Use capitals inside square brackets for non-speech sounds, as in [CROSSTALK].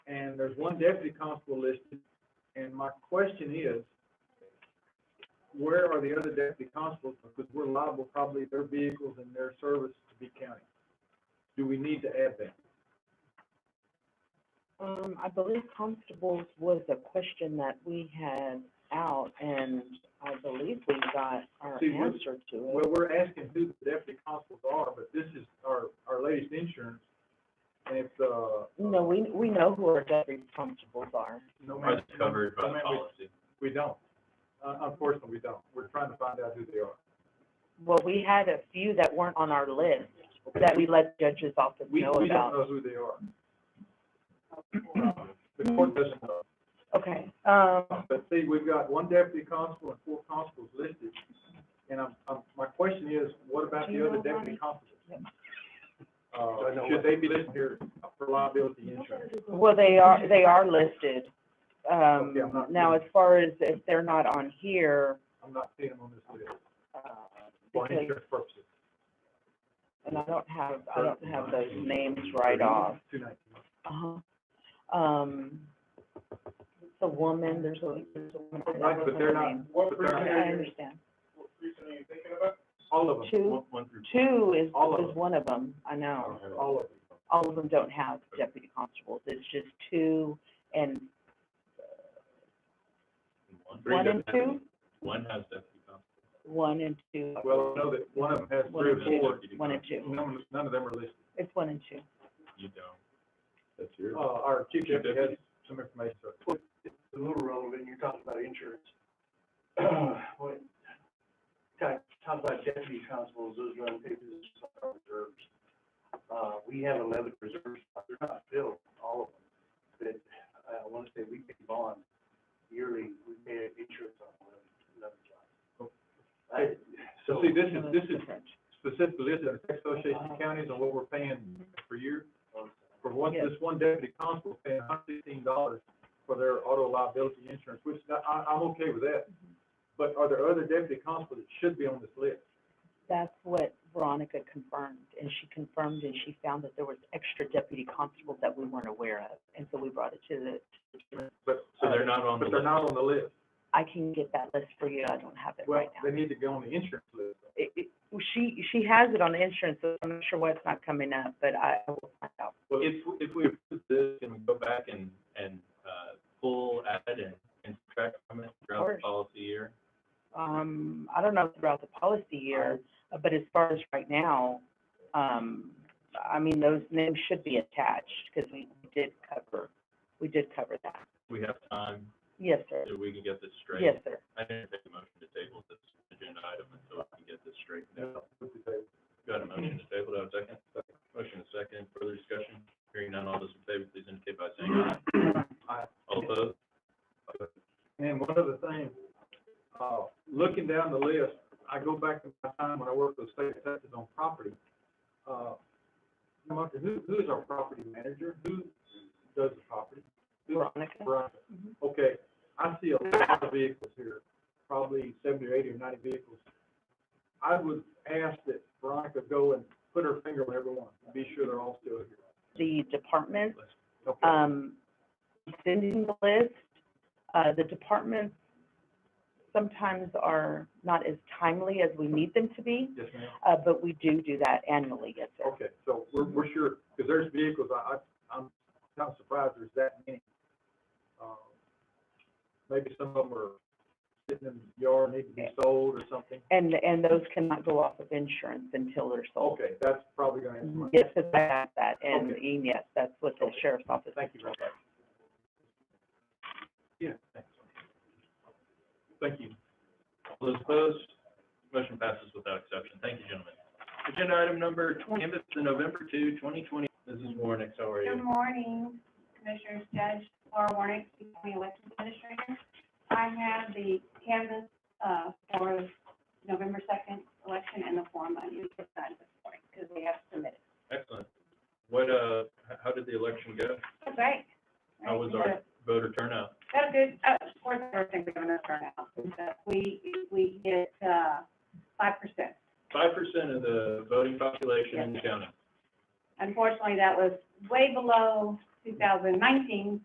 there's one deputy constable listed, and my question is, where are the other deputy constables? Because we're liable probably their vehicles and their service to be county. Do we need to add that? Um, I believe constables was a question that we had out, and I believe we got our See, we're- answer to it. Well, we're asking who the deputy constables are, but this is our, our latest insurance, and it's, uh. No, we, we know who our deputy constables are. no Are man- they covered by no the man- we- policy? We don't. Uh, unfortunately, we don't. We're trying to find out who they are. Well, we had a few that weren't on our list that we let judges office We, know we don't about. know who they are. The court doesn't know. Okay, um, But see, we've got one deputy constable and four constables listed, and I'm, I'm, my question is, what about Do the you other know deputy Ronnie? constables? Uh, should they be listed here for liability insurance? well, they are, they are listed. Um, Okay, I'm not- now, as far as if they're not on here, I'm not seeing them on this list, uh, for because insurance purposes. and I don't have, I don't have those names right off. Two nineteen. Uh-huh. Um, it's a woman, there's a, there's a woman. I don't Right, but remember they're her not, name. but they're I not, I understand. all of them, Two, One, one through two is, All of is one of them, I know. all of them. All of them don't have deputy constables, it's just two and one. Three one and deputies. two? One has deputy constable. One and two, Well, I know that one of them has three or One of four, Deputy one and constable. two, none, of- none of them are listed. it's one and two. You don't. That's yours. Uh, our chief Chief deputy has some information, so. a little relevant, you're talking about insurance. When, talk, Uh, talk about deputy constables, those run papers are reserves. Uh, we have eleven reserves, they're not filled, all of them, but uh, I want to say we pay bond yearly, we pay insurance on eleven, eleven jobs. I- So So, see, this is, No, this it's is different. specifically listed in the Association of Counties on what we're paying per year. For one, Yes. this one deputy constable paying hundred sixteen dollars for their auto liability insurance, which I, I- I'm okay with that. But are there other deputy constables that should be on this list? That's what Veronica confirmed, and she confirmed and she found that there was extra deputy constables that we weren't aware of, and so we brought it to the, But. So they're not on the But they're not on the list. I can get that list for you, I don't have it Well, right now. they need to go on the insurance list. It, it, she, she has it on the insurance, so I'm not sure why it's not coming up, but I I will find out. Well, if, if we approve this and we go back and, and, uh, pull, add and, and subtract from it throughout the Of course. policy year, Um, I don't know throughout the policy year, uh, but as far as right now, um, I mean, those names should be attached, because we did cover, we did cover that. we have time, Yes, sir. so we can get this straight. Yes, sir. I didn't take a motion to table this agenda item until we can get this straight. Got a motion to table, do I have a second? Motion is second, further discussion, hearing none, all those in favor, please indicate by saying [CLEARS THROAT] aye. Aye. All opposed? And one other thing, uh, looking down the list, I go back to my time when I worked with state taxes on property. Uh, no matter who, who is our property manager? Who does the property? Veronica? Right. Mhm. Okay, I see a lot of vehicles here, probably seventy or eighty or ninety vehicles. I would ask that Veronica go and put her finger on everyone, and be sure they're all still here. the department, Okay, um, sending the list. Uh, the departments sometimes are not as timely as we need them to be, yes, ma'am. uh, but we do do that annually, yes, sir. Okay, so we're, we're sure, because there's vehicles, I, I, I'm kind of surprised there's that many. Um, Maybe some of them are sitting in the yard, need to be sold or something. And, and those cannot go off of insurance until they're sold. Okay, that's probably gonna answer my, Yes, yes, I have that, Mm-hmm. and, E Okay. and yes, that's what the Okay. sheriff's office. thank you very much. Yeah, thanks. Thank you. All those opposed, motion passes without exception. Thank you, gentlemen. Agenda item number twenty, amendment to November two, twenty twenty. Mrs. Warnick, how are Good you? morning, Commissioners, Judge Laura Warnick, County Election Administrator. I have the canvas, uh, for November second election and the form I need to sign this morning, because we have submitted. Excellent. What, uh, h- how did the election go? That's right. How was our voter turnout? That's good, uh, of course, everything we're gonna turn out, but we, we hit, uh, five percent. Five percent of the voting population in the county. Unfortunately, that was way below two thousand nineteen,